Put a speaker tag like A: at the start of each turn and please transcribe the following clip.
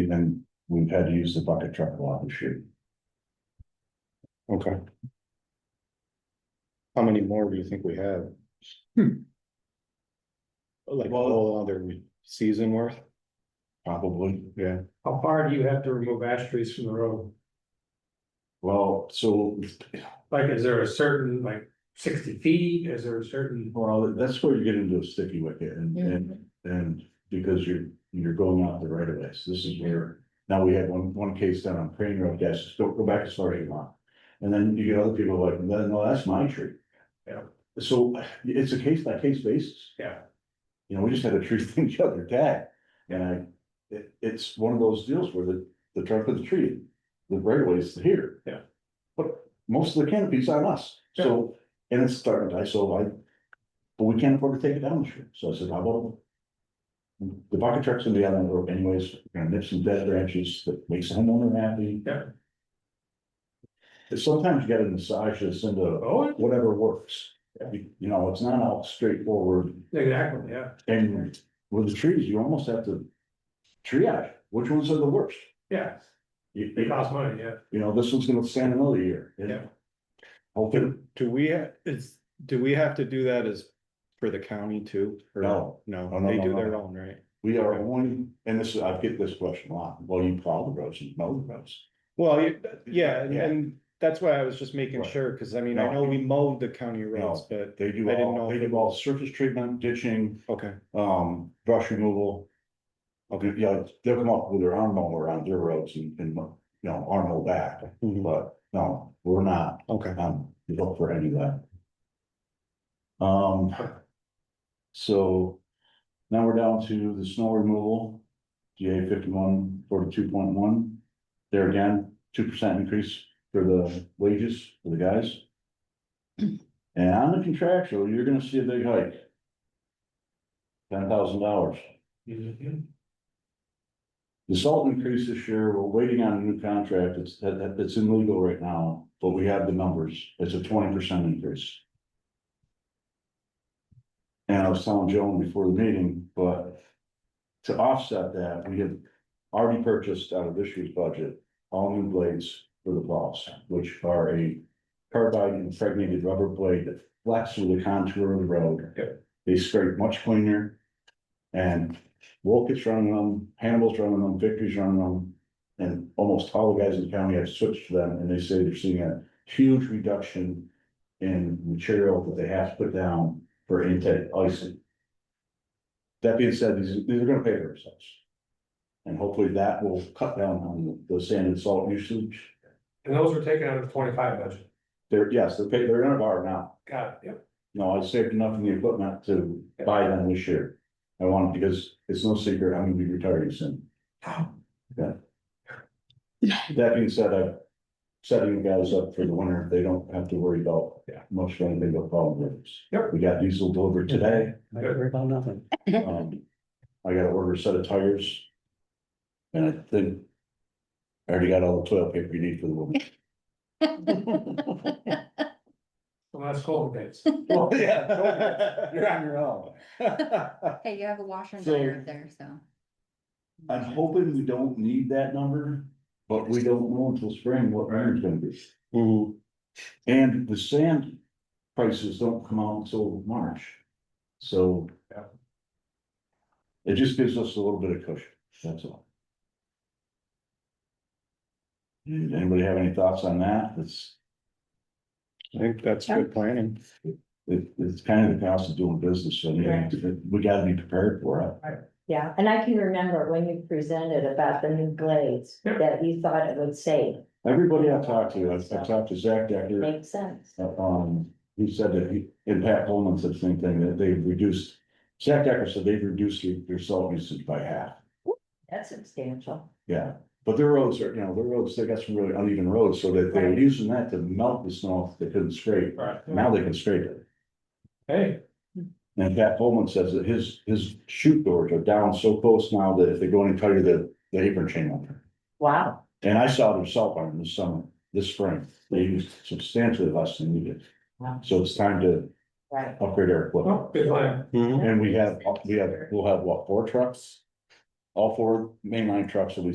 A: and then we've had to use the bucket truck a lot this year.
B: Okay. How many more do you think we have? Like a
A: Well-
B: whole other season worth?
A: Probably,
B: Yeah.
C: How far do you have to remove ash trees from the road?
A: well, so,
C: Like, is there a certain, like, sixty feet? Is there a certain?
A: well, that's where you get into a sticky wicket and, and, and because you're, you're going out the right of ways, this is where. Now, we had one, one case down on Crane Road, yes, don't go back as far as you want. And then you get other people like, no, no, that's my tree.
C: Yeah.
A: So it's a case by case basis.
C: Yeah.
A: You know, we just had a tree thing the other day, and I, it, it's one of those deals where the, the trunk of the tree, the right of way is here.
C: Yeah.
A: But most of the canopy's on us, so, and it's starting to die, so I, but we can't afford to take it down this year, so I said, how about? The bucket truck's gonna be out on the road anyways, we're gonna nip some dead branches that makes the homeowner happy.
C: Yeah.
A: It's Sometimes you gotta massage this into
C: Oh,
A: whatever works.
C: Yeah.
A: You you know, it's not all straightforward
C: exactly, yeah,
A: and with the trees, you almost have to triage, which ones are the worst?
C: yeah,
A: You,
C: it costs money, yeah.
A: you know, this one's gonna stand another year. you know?
C: Yeah.
A: Hopefully,
B: Do we, ha- is, do we have to do that as for the county too? or
A: No. No,
B: No,
A: no,
B: they
A: no,
B: do
A: no.
B: their own, right?
A: we are
B: Okay.
A: only, and this, is- I get this question a lot, well, you plow the roads, you mow the roads.
B: Well, you- yeah, and-
A: Yeah.
B: and that's why I was just making
A: Right.
B: sure, cause I mean, I
A: No.
B: know we mowed the county roads, but,
A: They do
B: I didn't
A: all,
B: know
A: they
B: if
A: do
B: it-
A: all surface treatment, ditching,
B: okay,
A: um, brush removal. Okay, yeah, they'll come up with their arm mower around their roads and, and, you know, arm mow back,
B: Mhm.
A: but no, we're not.
B: okay.
A: um, you look for any of that. Um, so now we're down to the snow removal, GA fifty-one forty-two point one. There again, two percent increase for the wages for the guys. And on the contractual, you're gonna see a big hike. Ten thousand dollars. The salt increase this year, we're waiting on a new contract, it's, that, that, it's in legal right now, but we have the numbers, it's a twenty percent increase. And I was telling Joan before the meeting, but to offset that, we have already purchased out of this year's budget, all new blades for the plows, which are a carbide impregnated rubber blade that flex through the contour of the road. They scrape much cleaner. And Wolkett's running them, Hannibal's running them, Victory's running them. And almost all the guys in the county have switched to them and they say they're seeing a huge reduction in material that they have to put down for intake icing. That being said, these, these are gonna pay for themselves. And hopefully that will cut down on the sand and salt usage.
C: And those were taken out of the twenty-five budget.
A: They're, yes, they're paid, they're in a bar now.
C: Got it, yep.
A: You know, I saved enough in the equipment to buy them this year. I want, because it's no secret, I'm gonna be retiring soon. That being said, I'm setting the guys up for the winter. They don't have to worry about
C: Yeah.
A: much of anything but problem roofs.
C: Yep.
A: We got diesel delivered today.
D: I don't worry about nothing.
A: Um, I gotta order a set of tires. And I think I already got all the toilet paper you need for the woman.
C: Well, that's cold days.
A: Well, yeah. You're on your own.
E: Hey, you have a washer and
A: So-
E: dryer up there, so.
A: I'm hoping we don't need that number, but we don't know until spring what winter's gonna be.
B: Mhm.
A: And the sand prices don't come out until March, so.
C: Yeah.
A: It just gives us a little bit of cushion, that's all. And Anybody have any thoughts on that? It's,
B: I think that's
E: Yeah.
B: good planning.
A: it- it's kind of the cost of doing business, so yeah, we gotta be prepared for it.
F: Yeah, and I can remember when you presented about the new blades,
C: Yeah.
F: that you thought it would save,
A: Everybody I talked to, I I talked to Zach Decker.
F: makes sense.
A: Uh, Um, he said that he, and Pat Coleman said the same thing, that they've reduced, Zach Decker said they've reduced their- their salt usage by half.
F: That's substantial.
A: Yeah, but their roads are, you know, their roads, they got some really uneven roads, so that they're
F: Right.
A: using that to melt the snow off they couldn't scrape.
C: Right.
A: Now they can scrape it.
C: Hey,
A: And Pat Coleman says that his, his chute doors are down so close now that if they go any tighter, the, the apron chain will turn.
F: Wow,
A: And I saw their salt barn this summer, this spring. They used substantially less than we did.
F: Wow.
A: So it's time to
F: right.
A: upgrade our equipment.
C: oh, good plan.
A: Mm-hmm.
B: Mhm.
A: And we have, we have, we'll have what, four trucks? All four mainline trucks will be